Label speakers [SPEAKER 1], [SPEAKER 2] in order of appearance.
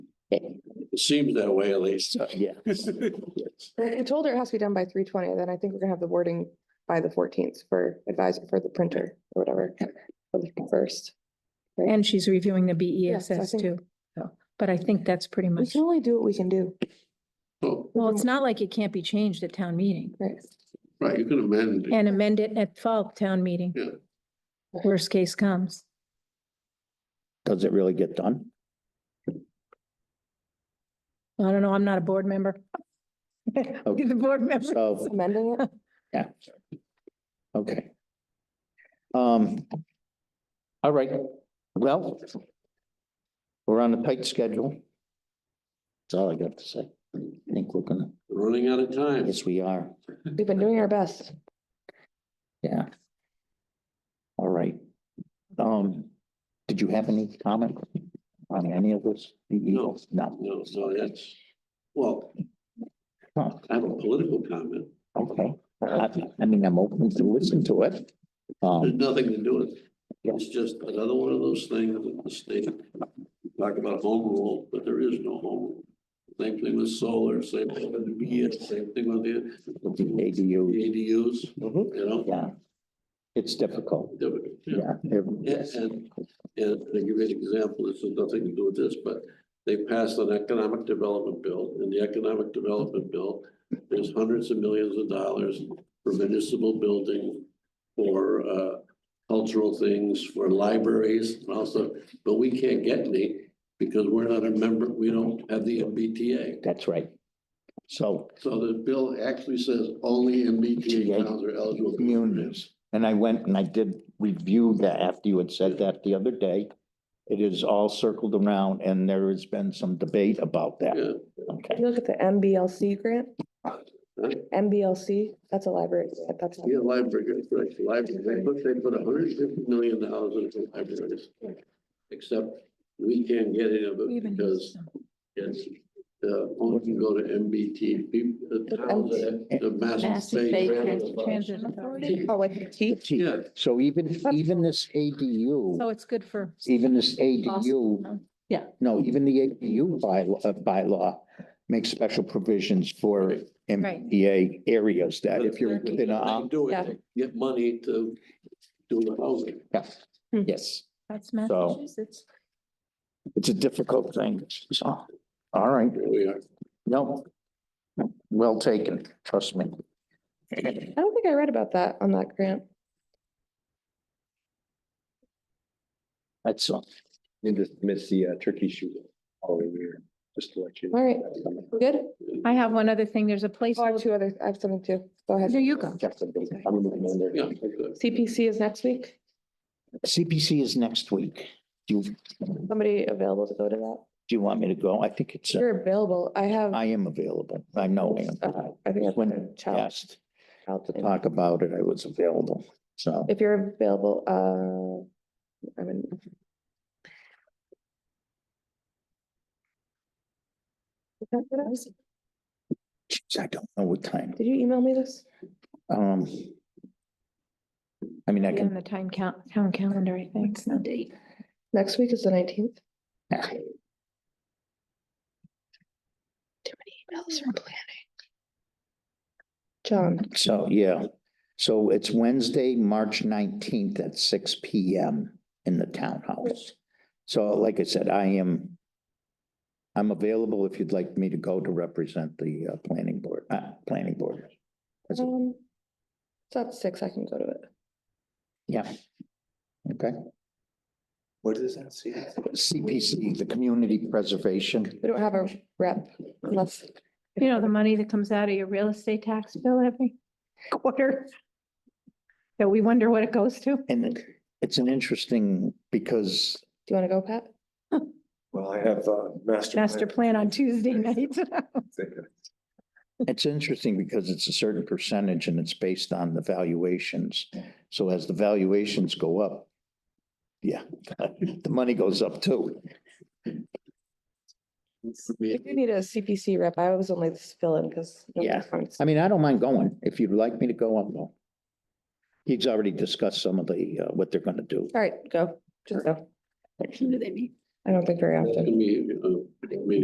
[SPEAKER 1] It seems that way at least.
[SPEAKER 2] Yeah.
[SPEAKER 3] I I told her it has to be done by three twenty, then I think we're gonna have the wording by the fourteenth for advisor for the printer or whatever. for the First,
[SPEAKER 4] And she's reviewing the
[SPEAKER 3] Yes, I
[SPEAKER 4] BESS
[SPEAKER 3] think-
[SPEAKER 4] too. So, but I think that's pretty
[SPEAKER 3] we
[SPEAKER 4] much,
[SPEAKER 3] can only do what we can do,
[SPEAKER 1] Oh,
[SPEAKER 4] well, it's not like it can't be changed at town meeting
[SPEAKER 3] right?
[SPEAKER 1] right, you can amend. it.
[SPEAKER 4] and amend it at fall town meeting.
[SPEAKER 1] Yeah.
[SPEAKER 4] Worst case comes.
[SPEAKER 2] Does it really get done?
[SPEAKER 4] I don't know, I'm not a board member.
[SPEAKER 1] Oh.
[SPEAKER 4] Be the board member.
[SPEAKER 2] So,
[SPEAKER 3] Amending it,
[SPEAKER 2] yeah. Okay. Um. All right, well. We're on a tight schedule. That's all I got to say. I think we're gonna,
[SPEAKER 1] Running out of time.
[SPEAKER 2] yes, we are,
[SPEAKER 3] we've been doing our best.
[SPEAKER 2] yeah. All right. Um, did you have any comment on any of this?
[SPEAKER 1] No.
[SPEAKER 2] No,
[SPEAKER 1] No, so that's, well,
[SPEAKER 2] Huh,
[SPEAKER 1] I have a political comment.
[SPEAKER 2] Oh, okay. I, I mean, I'm open to listen to it.
[SPEAKER 1] There's
[SPEAKER 2] Um,
[SPEAKER 1] nothing to do with it. It's just another one of those things that the state, talk about home rule, but there is no home rule. Same thing with solar, same thing with the BS, same thing with the
[SPEAKER 2] with the ADU,
[SPEAKER 1] ADUs, you know?
[SPEAKER 2] yeah. It's difficult,
[SPEAKER 1] Yeah.
[SPEAKER 2] yeah. it-
[SPEAKER 1] Yeah, and, and to give you an example, this has nothing to do with this, but they passed an economic development bill, and the economic development bill, there's hundreds of millions of dollars for municipal building, for, uh, cultural things, for libraries, and also, but we can't get any because we're not a member, we don't have the MBTA.
[SPEAKER 2] That's right. So,
[SPEAKER 1] So the bill actually says only MBTA towns are eligible.
[SPEAKER 2] Communities. and I went and I did review that after you had said that the other day. It is all circled around and there has been some debate about that.
[SPEAKER 1] Yeah,
[SPEAKER 3] If
[SPEAKER 2] Okay,
[SPEAKER 3] you look at the MBLC grant. MBLC, that's a library, grant, that's.
[SPEAKER 1] Yeah, library, good, right, library, they put, they put hundred and fifty million dollars into libraries. Except we can't get any of it
[SPEAKER 4] Even
[SPEAKER 1] because it's, uh, only can go to MBT, people, the uh, towns that have the massive.
[SPEAKER 4] Bay
[SPEAKER 1] Bay
[SPEAKER 4] Trans-
[SPEAKER 1] Transit
[SPEAKER 4] Transit Authority.
[SPEAKER 1] Authority.
[SPEAKER 3] Oh, like the T.
[SPEAKER 1] Yeah,
[SPEAKER 2] so even, even this
[SPEAKER 4] So
[SPEAKER 2] ADU,
[SPEAKER 4] it's good for.
[SPEAKER 2] even this ADU.
[SPEAKER 4] Yeah.
[SPEAKER 2] No, even the ADU bylaw, uh, bylaw makes special provisions for
[SPEAKER 1] Right.
[SPEAKER 2] MBTA areas that if you're
[SPEAKER 1] But they
[SPEAKER 2] within a.
[SPEAKER 1] can Do it,
[SPEAKER 3] Yeah.
[SPEAKER 1] they get money to do the housing.
[SPEAKER 2] Yeah.
[SPEAKER 3] Hmm.
[SPEAKER 2] Yes,
[SPEAKER 4] That's
[SPEAKER 2] So-
[SPEAKER 4] Massachusetts.
[SPEAKER 2] it's a difficult thing, so, all right.
[SPEAKER 1] Here we are.
[SPEAKER 2] No. Well taken, trust me.
[SPEAKER 3] I don't think I read about that on that grant.
[SPEAKER 2] That's all.
[SPEAKER 5] And just miss the uh, turkey shoot all the way there, just to let you.
[SPEAKER 3] All right, we're good?
[SPEAKER 4] I have one other thing. There's a place.
[SPEAKER 3] Oh, I have two other, I have something too. Go ahead.
[SPEAKER 4] There you go.
[SPEAKER 2] I'm moving on there.
[SPEAKER 1] Yeah, okay.
[SPEAKER 3] CPC is next week.
[SPEAKER 2] CPC is next week. Do you, do
[SPEAKER 3] Somebody available to go to that?
[SPEAKER 2] you want me to go? I think it's, uh,
[SPEAKER 3] You're available. I have.
[SPEAKER 2] I am available. I know I am.
[SPEAKER 3] Uh, I think I've
[SPEAKER 2] When
[SPEAKER 3] got a child.
[SPEAKER 2] asked
[SPEAKER 3] child
[SPEAKER 2] to
[SPEAKER 3] thing.
[SPEAKER 2] talk about it, I was available, so.
[SPEAKER 3] If you're available, uh, I mean,
[SPEAKER 2] Jeez, I don't know what time.
[SPEAKER 3] did you email me this?
[SPEAKER 2] Um. I mean, I
[SPEAKER 4] On
[SPEAKER 2] can,
[SPEAKER 4] the time count, town calendar, I think. It's the date.
[SPEAKER 3] Next week is the nineteenth. Too many emails from planning. John,
[SPEAKER 2] so, yeah. So it's Wednesday, March nineteenth at six P M in the townhouse. So like I said, I am. I'm available if you'd like me to go to represent the uh, planning board, uh, planning board. That's it.
[SPEAKER 3] um, it's at six, I can go to it.
[SPEAKER 2] Yeah. Okay,
[SPEAKER 5] What does that say?
[SPEAKER 2] CPC, the community preservation.
[SPEAKER 3] We don't have a rep unless.
[SPEAKER 4] You know, the money that comes out of your real estate tax bill every quarter. That we wonder what it goes to.
[SPEAKER 2] And it's an interesting because
[SPEAKER 3] Do you want to go, Pat?
[SPEAKER 5] Well, I have uh master.
[SPEAKER 4] Master plan on Tuesday night.
[SPEAKER 2] It's interesting because it's a certain percentage and it's based on the valuations. So as the valuations go up, yeah, the money goes up too.
[SPEAKER 3] We do need a CPC rep. I was only this fill-in because.
[SPEAKER 2] Yeah. I mean, I don't mind going. If you'd like me to go, I'll go. He's already discussed some of the, uh, what they're gonna do.
[SPEAKER 3] All right, go. Just go.
[SPEAKER 4] Do they meet?
[SPEAKER 3] I don't think very
[SPEAKER 1] That's
[SPEAKER 3] often.
[SPEAKER 1] gonna be, uh, I mean,